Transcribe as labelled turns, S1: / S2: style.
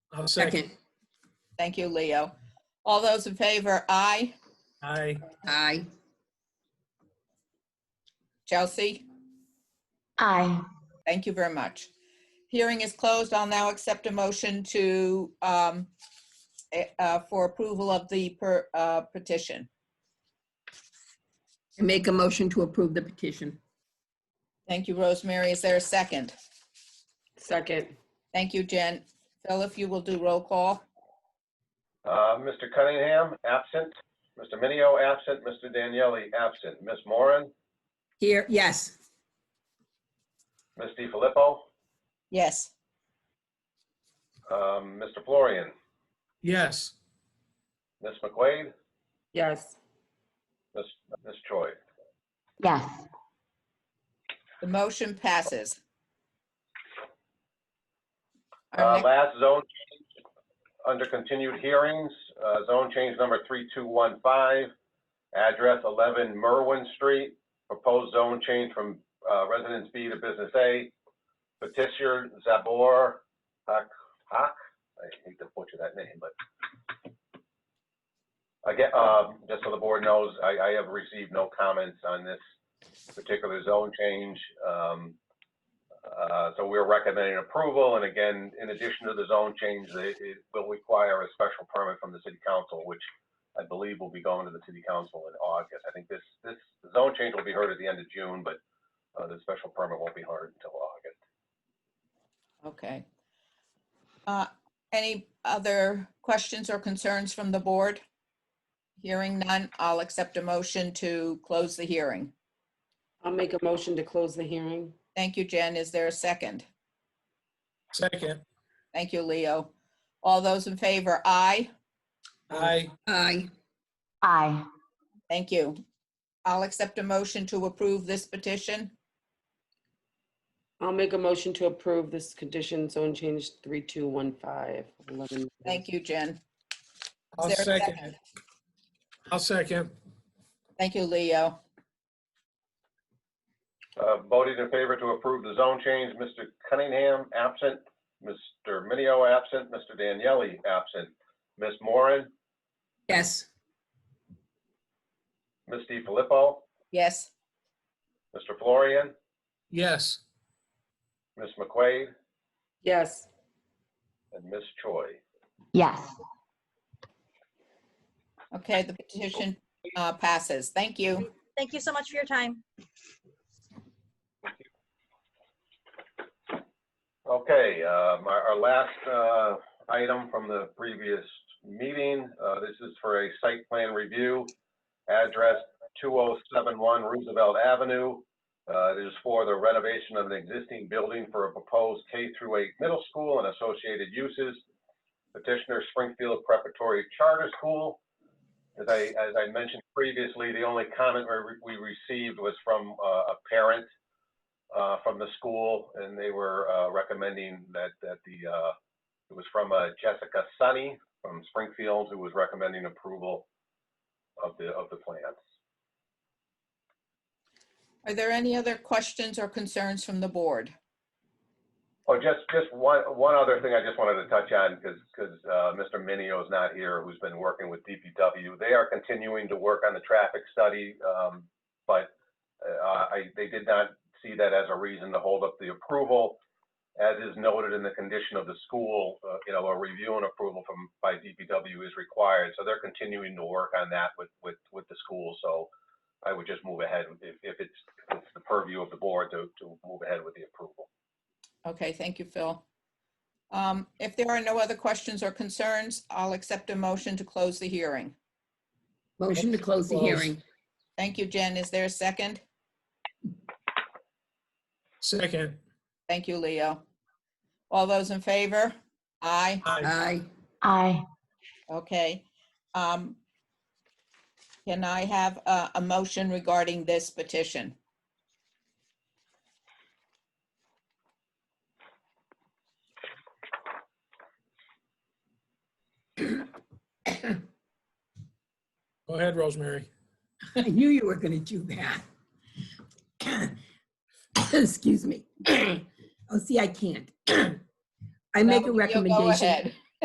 S1: I'll second.
S2: Thank you, Leo. All those in favor, aye.
S1: Aye.
S3: Aye.
S2: Chelsea,
S4: Aye.
S2: thank you very much. Hearing is closed. I'll now accept a motion to, um, eh, uh, for approval of the per- uh, petition.
S3: I make a motion to approve the petition.
S2: Thank you, Rosemary. Is there a second?
S3: Second.
S2: Thank you, Jen. Phil, if you will do roll call.
S5: Uh, Mr. Cunningham, absent. Mr. Minio, absent. Mr. Daniele, absent. Ms. Moran,
S3: Here, yes.
S5: Ms. DiFilippo,
S2: Yes,
S5: um, Mr. Florian,
S1: Yes.
S5: Ms. McQuade,
S3: Yes.
S5: Ms. Ms. Choi.
S4: Yes.
S2: the motion passes. Our
S5: Uh,
S2: next-
S5: Last zone change, under continued hearings, uh, zone change number 3215, address 11 Merwin Street, proposed zone change from uh, Residence B to Business A. Petitioner Zabor Haq, Haq? I hate to butcher that name, but again, um, just so the board knows, I I have received no comments on this particular zone change. Um, uh, So we're recommending approval, and again, in addition to the zone change, it it will require a special permit from the city council, which I believe will be going to the city council in August. I think this, this zone change will be heard at the end of June, but uh, the special permit won't be heard until August.
S2: Okay. Uh, Any other questions or concerns from the board? Hearing none, I'll accept a motion to close the hearing.
S6: I'll make a motion to close the hearing.
S2: Thank you, Jen. Is there a second?
S1: Second.
S2: Thank you, Leo. All those in favor, aye.
S1: Aye.
S3: Aye.
S4: Aye.
S2: Thank you. I'll accept a motion to approve this petition.
S6: I'll make a motion to approve this condition zone change 3215. 11.
S2: Thank you, Jen.
S1: I'll
S2: Is there a
S1: second it. I'll second.
S2: Thank you, Leo.
S5: Uh, Voted in favor to approve the zone change, Mr. Cunningham absent, Mr. Minio absent, Mr. Daniele absent, Ms. Moran,
S3: Yes.
S5: Ms. DiFilippo,
S2: Yes,
S5: Mr. Florian,
S1: Yes.
S5: Ms. McQuade,
S6: Yes,
S5: and Ms. Choi.
S4: Yes.
S2: okay, the petition uh, passes. Thank you.
S7: Thank you so much for your time.
S5: Okay, um, our our last uh, item from the previous meeting, uh, this is for a site plan review, address 2071 Roosevelt Avenue. Uh, It is for the renovation of an existing building for a proposed K through 8 middle school and associated uses. Petitioner Springfield Preparatory Charter School. As I, as I mentioned previously, the only comment we we received was from uh, a parent uh, from the school, and they were uh, recommending that that the uh, it was from uh, Jessica Sunny from Springfield, who was recommending approval of the of the plans.
S2: Are there any other questions or concerns from the board?
S5: Oh, just just one one other thing I just wanted to touch on because because uh, Mr. Minio is not here, who's been working with DPW. They are continuing to work on the traffic study, um, but uh, I they did not see that as a reason to hold up the approval. As is noted in the condition of the school, uh, you know, a review and approval from by DPW is required. So they're continuing to work on that with with with the school. So I would just move ahead if, if it's if it's the purview of the board to to move ahead with the approval.
S2: Okay, thank you, Phil. Um, If there are no other questions or concerns, I'll accept a motion to close the hearing.
S3: Motion to close the
S1: Close.
S3: hearing.
S2: Thank you, Jen. Is there a second?
S1: Second.
S2: Thank you, Leo. All those in favor? Aye.
S1: Aye.
S3: Aye.
S4: Aye.
S2: Okay. Um, Can I have a, a motion regarding this petition?
S1: Go ahead, Rosemary.
S3: I knew you were going to do that. Excuse me. Oh, see, I can't. I make a
S2: No, you'll go
S3: recommendation.
S2: ahead.